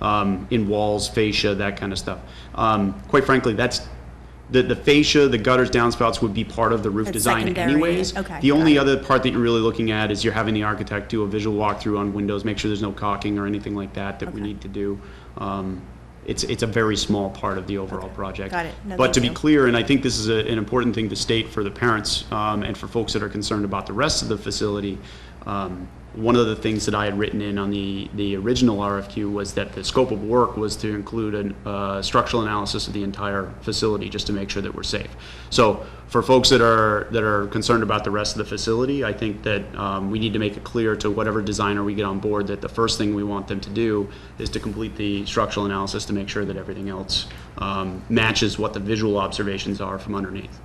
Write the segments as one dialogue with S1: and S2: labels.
S1: um, in walls, fascia, that kind of stuff. Um, Quite frankly, that's, the the fascia, the gutters, downspouts would be part of the roof
S2: That's
S1: design
S2: secondary,
S1: anyways.
S2: okay,
S1: The only
S2: got
S1: other part that you're really looking at is you're having the architect do a visual walkthrough on windows, make sure there's no caulking or anything like that that we
S2: Okay.
S1: need to do. Um, It's, it's a very small part of the overall project.
S2: Got it. No,
S1: But to be
S2: thank you.
S1: clear, clear, and I think this is a- an important thing to state for the parents um, and for folks that are concerned about the rest of the facility. um, One of the things that I had written in on the, the original RFQ was that the scope of work was to include a uh, structural analysis of the entire facility, just to make sure that we're safe. So for folks that are, that are concerned about the rest of the facility, I think that um, we need to make it clear to whatever designer we get on board that the first thing we want them to do is to complete the structural analysis to make sure that everything else um, matches what the visual observations are from underneath.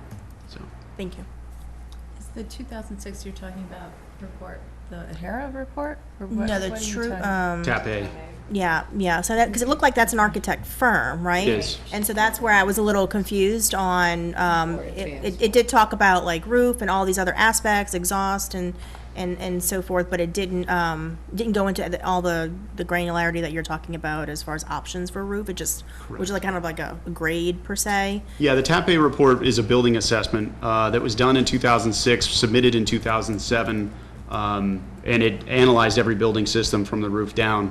S1: So,
S2: Thank you.
S3: Is the 2006 you're talking about report, the O'Hara report? or what-
S2: No, the
S3: what are you
S2: true,
S3: talking-
S2: um,
S1: tap A.
S2: yeah, yeah, so that, because it looked like that's an architect firm, right?
S1: It is.
S2: And so that's where I was a little confused on, um,
S4: Or
S2: it,
S4: advanced.
S2: it- it did talk about like roof and all these other aspects, exhaust and, and, and so forth, but it didn't, um, didn't go into the- all the, the granularity that you're talking about as far as options for roof, it just, which is like kind of like a grade per se.
S1: Yeah, the TAP A report is a building assessment uh, that was done in 2006, submitted in 2007, um, and it analyzed every building system from the roof down.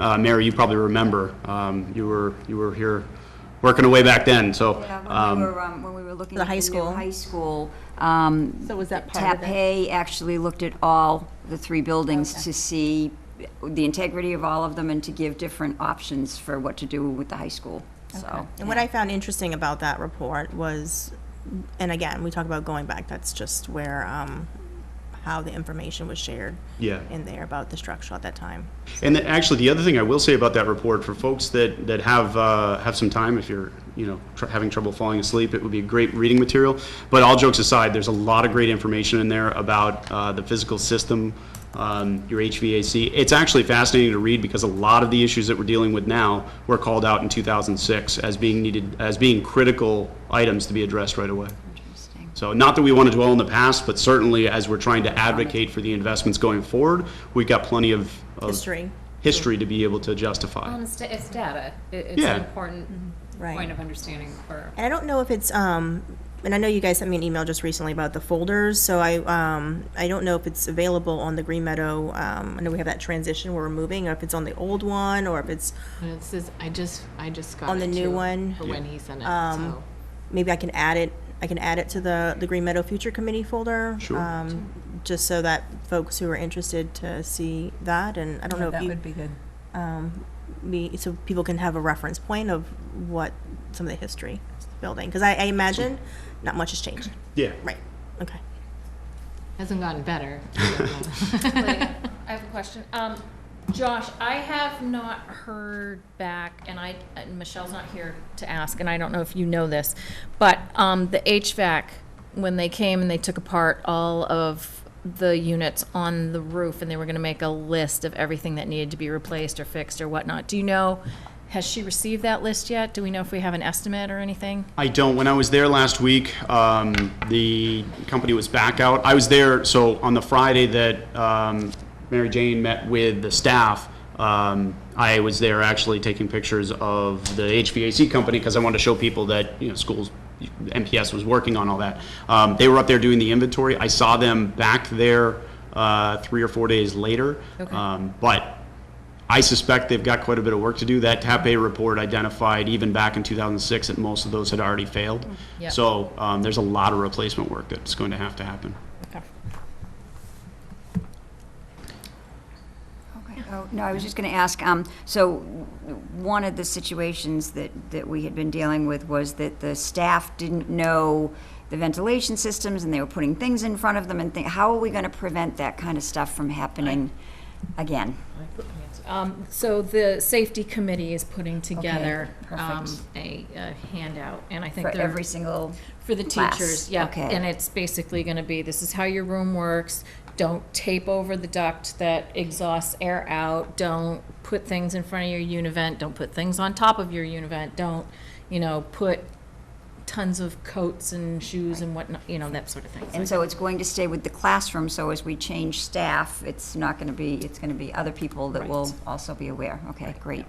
S1: Uh, Mary, you probably remember, um, you were, you were here working away back then, so.
S4: Yeah, when
S1: um,
S4: we were, um, when we were looking
S2: The
S4: at the
S2: high
S4: new
S2: school.
S4: high school, um.
S3: So was that part of it?
S4: Tapé actually looked at all the three buildings to see the integrity of all of them and to give different options for what to do with the high school, so.
S2: And what I found interesting about that report was, and again, we talk about going back, that's just where, um, how the information was shared.
S1: Yeah.
S2: In there about the structure at that time.
S1: And then, actually, the other thing I will say about that report for folks that that have uh, have some time, if you're you know tr- having trouble falling asleep, it would be great reading material. But all jokes aside, there's a lot of great information in there about uh, the physical system, um, your HVAC. It's actually fascinating to read because a lot of the issues that we're dealing with now were called out in 2006 as being needed as being critical items to be addressed right away.
S4: Interesting.
S1: So not that we want to dwell on the past, but certainly as we're trying to advocate for the investments going forward, we've got plenty of. of
S2: History.
S1: History to be able to justify.
S5: Um, it's, da- it's data. It, it's
S1: Yeah.
S5: an important
S6: Mm-hmm.
S2: Right.
S5: point of understanding for.
S2: And I don't know if it's, um, and I know you guys sent me an email just recently about the folders, so I, um, I don't know if it's available on the Green Meadow, um, I know we have that transition where we're moving, or if it's on the old one, or if it's,
S6: No, This is, I just, I just got
S2: On the
S6: it,
S2: new
S6: too,
S2: one?
S6: For when he sent it,
S2: Um,
S6: so.
S2: maybe I can add it, I can add it to the, the Green Meadow Future Committee folder.
S1: Sure.
S2: Um, just so that folks who are interested to see that, and I don't know if
S3: That
S2: you.
S3: would be good.
S2: um, me, so people can have a reference point of what some of the history of the building, because I, I imagine not much has changed.
S1: Yeah.
S2: Right, okay.
S6: Hasn't gotten better. I don't know.
S7: Wait, I have a question. Um, Josh, I have not heard back, and I, and Michelle's not here to ask, and I don't know if you know this, but, um, the HVAC, when they came and they took apart all of the units on the roof, and they were gonna make a list of everything that needed to be replaced or fixed or whatnot, do you know, has she received that list yet? Do we know if we have an estimate or anything?
S1: I don't, when I was there last week, um, the company was back out. I was there, so on the Friday that, um, Mary Jane met with the staff, um, I was there actually taking pictures of the HVAC company because I wanted to show people that, you know, schools, MPS was working on all that. Um, they were up there doing the inventory. I saw them back there, uh, three or four days later.
S7: Okay.
S1: Um, but I suspect they've got quite a bit of work to do. That TAP A report identified even back in 2006 that most of those had already failed.
S7: Yeah.
S1: So um, there's a lot of replacement work that's going to have to happen.
S4: Okay. Oh, no, I was just going to ask, um, so one of the situations that, that we had been dealing with was that the staff didn't know the ventilation systems and they were putting things in front of them and thi- how are we going to prevent that kind of stuff from happening again?
S5: Um, so the safety committee is putting together, um,
S4: perfect.
S5: a, a handout, and I think
S4: For
S5: they're.
S4: every single,
S5: For the
S4: class.
S5: teachers, yeah.
S4: Okay.
S5: And it's basically gonna be, this is how your room works. Don't tape over the duct that exhausts air out. Don't put things in front of your univent. Don't put things on top of your univent. Don't, you know, put
S7: tons of coats and shoes and whatnot, you know, that sort of thing. So I
S4: And so it's going to stay with the classroom, so as we change staff, it's not going to be, it's going to be other people that will also be aware. Okay, great.